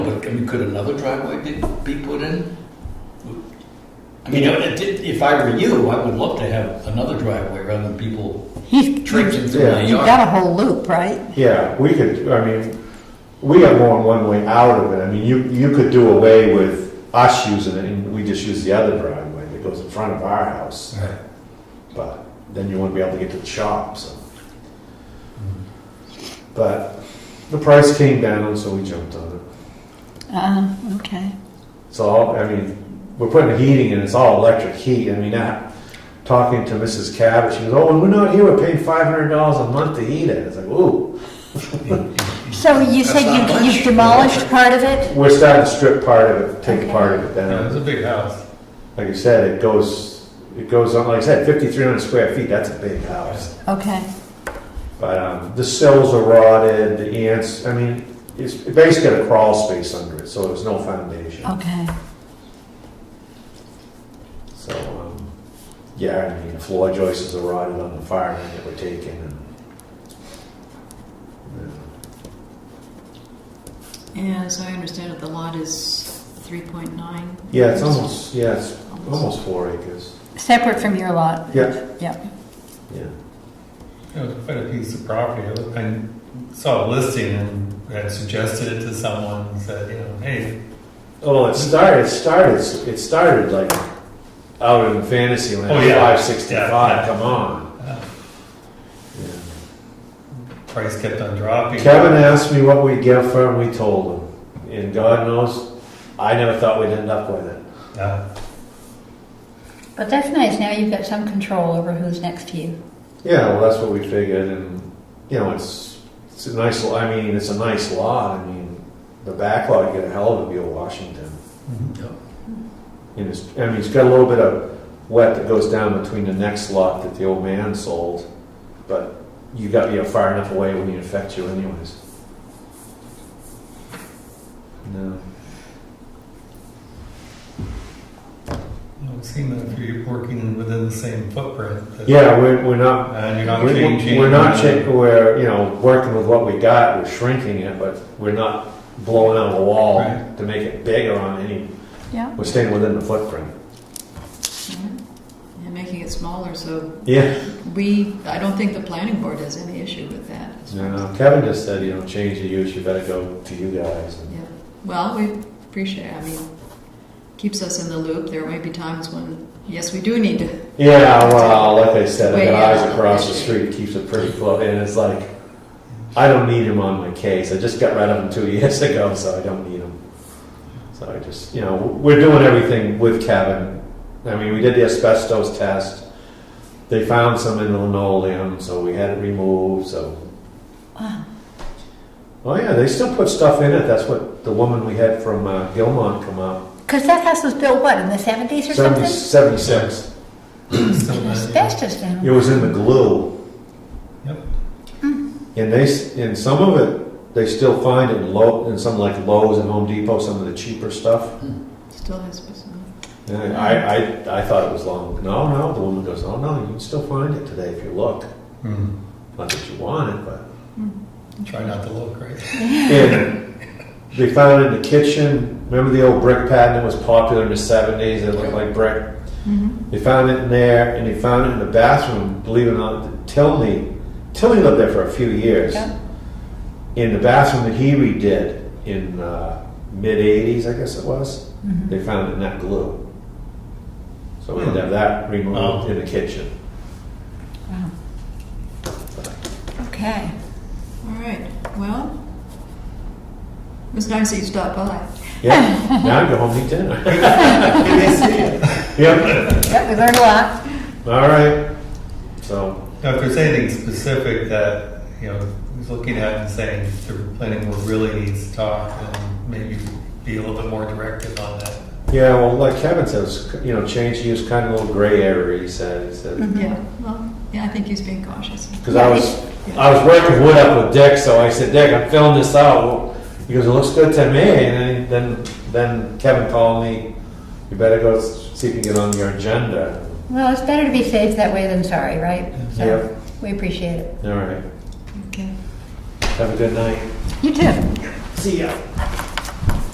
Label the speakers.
Speaker 1: I mean, could another driveway be, be put in? I mean, it did- if I were you, I would love to have another driveway rather than people
Speaker 2: You've,
Speaker 1: traipsing
Speaker 2: you've
Speaker 1: through my
Speaker 3: Yeah.
Speaker 1: yard.
Speaker 2: got a whole loop, right?
Speaker 3: Yeah, we could, I mean, we are going one way out of it. I mean, you, you could do away with us using it and we just use the other driveway that goes in front of our house.
Speaker 1: Right.
Speaker 3: But then you wouldn't be able to get to the shop, so. But the price came down, so we jumped on it.
Speaker 2: Uh, okay.
Speaker 3: It's all, I mean, we're putting heating in, it's all electric heat. I mean, that, talking to Mrs. Cabot, she goes, oh, when we're not here, we're paying five hundred dollars a month to heat it. It's like, ooh.
Speaker 2: So you
Speaker 1: That's
Speaker 2: said
Speaker 1: not
Speaker 2: you-
Speaker 1: much.
Speaker 2: you've demolished part of it?
Speaker 3: We're starting to strip part of it, take
Speaker 2: Okay.
Speaker 3: part of it down.
Speaker 4: Yeah, it's a big house.
Speaker 3: like you said, it goes, it goes on, like I said, fifty-three hundred square feet, that's a big house.
Speaker 2: Okay.
Speaker 3: But, um, the cells are rotted, the ants, I mean, it's basically got a crawl space under it, so there's no foundation.
Speaker 2: Okay.
Speaker 3: So, um, yeah, I mean, the floor joists are rotted on the fire line that we're taking and.
Speaker 5: Yeah, as I understand it, the lot is 3.9.
Speaker 3: Yeah, it's almost, yeah, it's almost four acres,
Speaker 2: Separate from your lot?
Speaker 3: Yeah.
Speaker 2: Yep.
Speaker 3: yeah.
Speaker 4: It was quite a piece of property. I I saw a listing and had suggested it to someone and said, you know, hey,
Speaker 3: Oh, Well, it started, it started, it started like out in fantasy land,
Speaker 4: Oh, yeah.
Speaker 3: five sixty-five,
Speaker 4: Yeah.
Speaker 3: come on.
Speaker 4: uh,
Speaker 3: Yeah.
Speaker 4: price kept on dropping.
Speaker 3: Kevin asked me what we'd get for him, we told him. And God knows, I never thought we'd end up with it.
Speaker 4: Yeah.
Speaker 2: But that's nice, now you've got some control over who's next to you.
Speaker 3: Yeah, well, that's what we figured, and, you know, it's, it's a nice, lo- I mean, it's a nice lot, I mean, the backlog, you get a hell of a view of Washington.
Speaker 1: Yep.
Speaker 3: And it's, I mean, it's got a little bit of wet that goes down between the next lot that the old man sold, but you gotta be far enough away when it affects you anyways. No.
Speaker 4: Well, It seemed that if you're working within the same footprint. that-
Speaker 3: Yeah, we're, we're not,
Speaker 4: And you're not
Speaker 3: We're
Speaker 4: changing.
Speaker 3: we're not changing, we're, you know, working with what we got, we're shrinking it, but we're not blowing out a wall
Speaker 4: Right.
Speaker 3: to make it bigger on any,
Speaker 2: Yeah.
Speaker 3: we're staying within the footprint.
Speaker 5: And making it smaller, so
Speaker 3: Yeah,
Speaker 5: we, I don't think the planning board has any issue with that. as far
Speaker 3: you
Speaker 5: as-
Speaker 3: know, Kevin just said, you know, change the use, you better go to you guys. and-
Speaker 5: Yeah, well, we appreciate, I mean, keeps us in the loop. There may be times when, yes, we do need to,
Speaker 3: Yeah, well, like I said, the
Speaker 5: Wait,
Speaker 3: guys
Speaker 5: yeah.
Speaker 3: across the street keeps it pretty close, and it's like, I don't need him on my case, I just got rid of him two years ago, so I don't need him. So I just, you know, we're doing everything with Kevin. I mean, we did the asbestos test, they found some in the linoleum, so we had it removed, so.
Speaker 2: Wow.
Speaker 3: Oh yeah, they still put stuff in it, that's what the woman we had from uh, Gilmont come up,
Speaker 2: Because that house was built, what, in the 70s or
Speaker 3: seventy,
Speaker 2: something?
Speaker 3: seventy-six,
Speaker 4: Still not-
Speaker 2: Asbestos down.
Speaker 3: it was in the glue. Hmm.
Speaker 4: Yep.
Speaker 3: And they, s- and some of it, they still find in low, in some like Lowe's and Home Depot, some of the cheaper stuff.
Speaker 5: still has, some-
Speaker 3: And I, I, I thought it was long, no, no, the woman goes, oh no, you can still find it today if you look.
Speaker 4: Hmm.
Speaker 3: Not that you want it, but.
Speaker 4: Try not to look, right?
Speaker 3: And they found it in the kitchen, remember the old brick pattern that was popular in the seventies, that looked like brick? They found it in there, and they found it in the bathroom, believe it or not, Tilney, Tilney lived there for a few years.
Speaker 2: Yeah.
Speaker 3: In the bathroom that he redid in uh, mid '80s, I guess it was, they found it in that glue. So we had to have that removed
Speaker 4: Wow.
Speaker 3: in the kitchen.
Speaker 2: Wow. Okay.
Speaker 5: all right, well, it was nice that you stopped by.
Speaker 3: Yeah, now I go home and eat dinner. yep.
Speaker 2: Yeah, we learned a lot.
Speaker 3: All right. So
Speaker 4: Now, if there's anything specific that, you know, he's looking at and saying the planning board really needs to talk, then maybe be a little bit more directive on that.
Speaker 3: yeah, well, like Kevin says, you know, change to use kind of a little gray area. He said, he said.
Speaker 5: Yeah, well, yeah, I think he's being cautious.
Speaker 3: Because I was, I was working wood up with Dick, so I said, Dick, I'm filling this out. He goes, it looks good to me. And then, then Kevin called me, you better go see if you can get on your agenda.
Speaker 2: Well, it's better to be safe that way than sorry, right? So,
Speaker 3: Yep.
Speaker 2: We appreciate it.
Speaker 3: All right,
Speaker 5: Okay.
Speaker 3: have a good night.
Speaker 2: You too.
Speaker 3: See ya.